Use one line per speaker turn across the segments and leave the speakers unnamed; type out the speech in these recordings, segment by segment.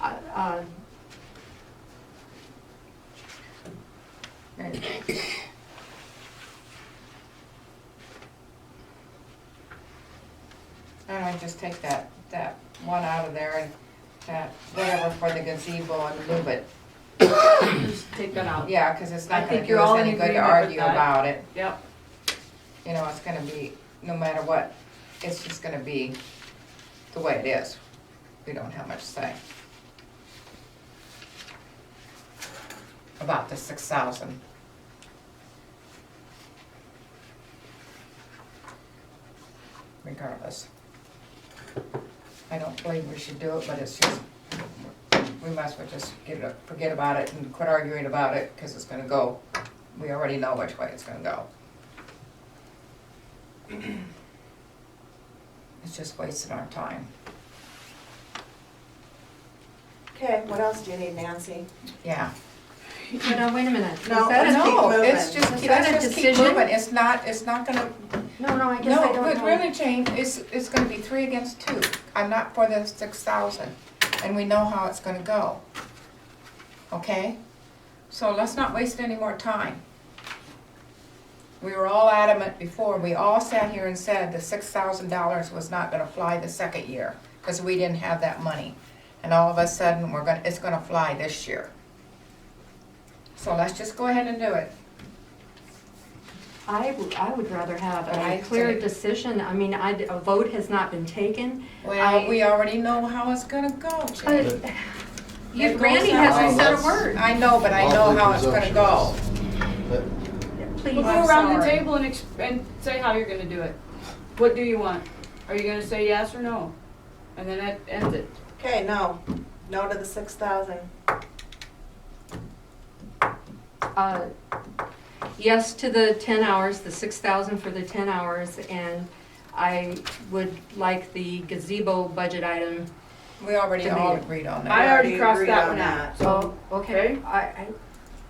uh, uh, and-
And I just take that, that one out of there and that, whatever for the gazebo and move it.
Just take that out.
Yeah, cause it's
I
not gonna
think
do
you're all
us
in
any good to
agreement with
argue
that.
about it.
Yep,
You know, it's gonna be, no matter what, it's just gonna be the way it is. We don't have much say. About the six thousand. Regardless. I don't believe we should do it, but it's just, we might as well just get it, forget about it and quit arguing about it, cause it's gonna go, we already know which way it's gonna go. It's just wasting our time.
Okay, what else do you need, Nancy?
Yeah.
no, no, wait a minute. Is
No,
that a-
no. keep moving.
It's just,
Is
let's
that a
just keep
decision?
moving. It's not, it's not gonna,
No, no, I guess I
no,
don't
but
know.
really, Jane, it's, it's gonna be three against two. I'm not for the six thousand, and we know how it's gonna go. Okay? So let's not waste any more time. We were all adamant before. We all sat here and said the six thousand dollars was not gonna fly the second year, cause we didn't have that money. And all of a sudden, we're gonna, it's gonna fly this year. So let's just go ahead and do it.
I would, I would rather have
But I
a clear
say-
decision. I mean, I, a vote has not been taken.
Well,
I- uh,
we already know how it's gonna go, Jane.
But yet Randy hasn't said a word.
I know, but I know how it's gonna go.
But
Please,
Well,
I'm
go around the
sorry.
table and, ex- and say how you're gonna do it. What do you want? Are you gonna say yes or no? And then that ends it.
Okay, no, no to the six thousand.
Uh, Yes to the 10 hours, the 6,000 for the 10 hours, and I would like the gazebo budget item.
We already
Didn't
all
they?
agreed on
I
that.
already
already
crossed
agreed
that
on
one out,
that.
Oh,
so.
I,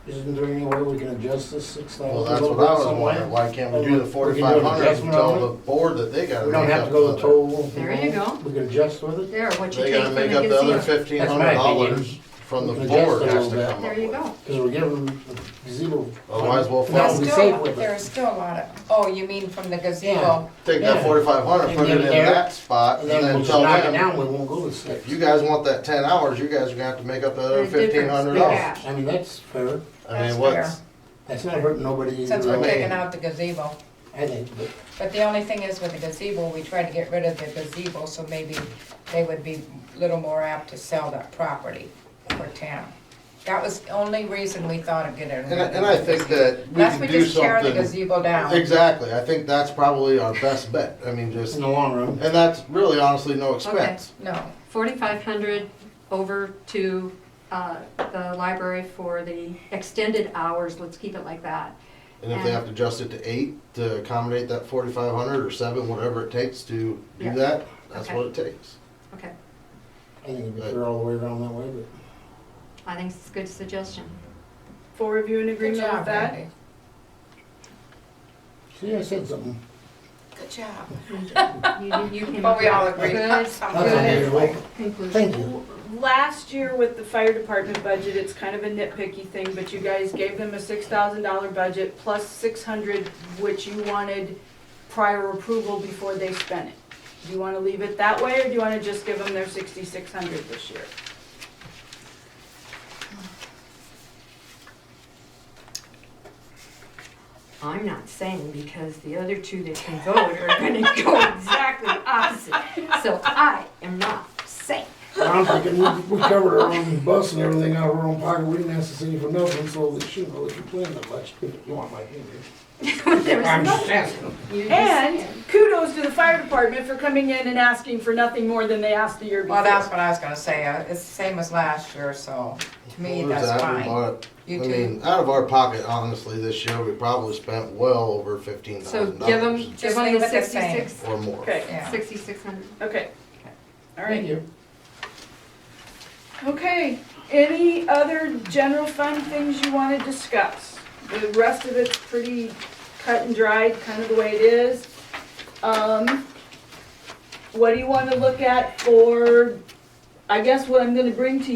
Isn't there any way we can adjust this six thousand?
Well, that's what I was wondering, why can't we do the forty-five hundred and tell the board that they gotta
We don't
make
have
up
to go to
the other?
total.
There you go.
We can adjust with it,
there, what you
They
take
gotta
from
make up the other
the
fifteen
That's my
hundred
opinion.
dollars from the
We can adjust
board
a
has
little
to
bit.
come
gazebo.
up
There you
with.
go.
because we're giving them zero.
Otherwise, we'll
Now,
There's
follow.
we
still,
save with
there's
it.
still a lot of, oh, you mean from the gazebo?
Take that
Yeah.
forty-five hundred,
And
put it
get
in
it there,
that spot,
And
and
then
then
we'll just
tell
knock it
them,
down, we won't go to
if
six.
you guys want that ten hours, you guys are gonna have to make up the other
The difference,
fifteen hundred
yeah.
dollars.
I mean, that's fair,
I
That's
mean, what's,
that's not hurting nobody
Since
either
we're
way,
taking out the gazebo.
I think, but
But the only thing is with the gazebo, we tried to get rid of the gazebo, so maybe they would be a little more apt to sell that property for town. That was the only reason we thought of getting rid
and I,
of
and I
the
think
gazebo.
that we
Unless
can
we
do
just tear the
something.
gazebo down.
Exactly, I think that's probably our best bet, I mean, just,
in
and
the long run,
that's really honestly no expense.
No.
4,500 over to uh, the library for the extended hours, let's keep it like that.
And if they
And-
have to adjust it to eight to accommodate that forty-five hundred or seven, whatever it takes to
Yeah.
do that, that's
Okay.
what it takes.
Okay,
I think it'd be fair all the way around that way, but.
I think it's a good suggestion.
Full review and
Good
agreement with
job,
that?
Randy.
See, I said something.
Good job.
You- you came
But we all
up with
agree.
a
That's
Good.
unusual.
Good conclusion.
Thank you.
Last year with the fire department budget, it's kind of a nitpicky thing, but you guys gave them a six thousand dollar budget plus six hundred, which you wanted prior approval before they spent it. Do you wanna leave it that way, or do you wanna just give them their sixty-six hundred this year?
I'm not saying because the other two that can vote are gonna go exactly opposite. So I am not saying.
I'm thinking, we, we covered our own bus and everything out of our own pocket, we didn't ask the city for nothing, so they shouldn't really complain that much, if you want my opinion.
There was
I'm
no-
just asking.
you just-
And kudos to the fire department for coming in and asking for nothing more than they asked the year before.
Well, that's what I was gonna say, uh, it's the same as last year, so to me,
What was
that's
that? We
fine.
bought- I
You too.
mean, out of our pocket, honestly, this year, we probably spent well over fifteen
So
thousand
give them,
dollars
give
leave
them the
it the same.
sixty-six,
or more.
Okay,
Yeah,
sixty-six hundred.
okay. All
Thank
right.
you.
Okay, any other general fund things you want to discuss? The rest of it's pretty cut and dried, kind of the way it is. Um, What do you want to look at for, I guess what I'm going to bring to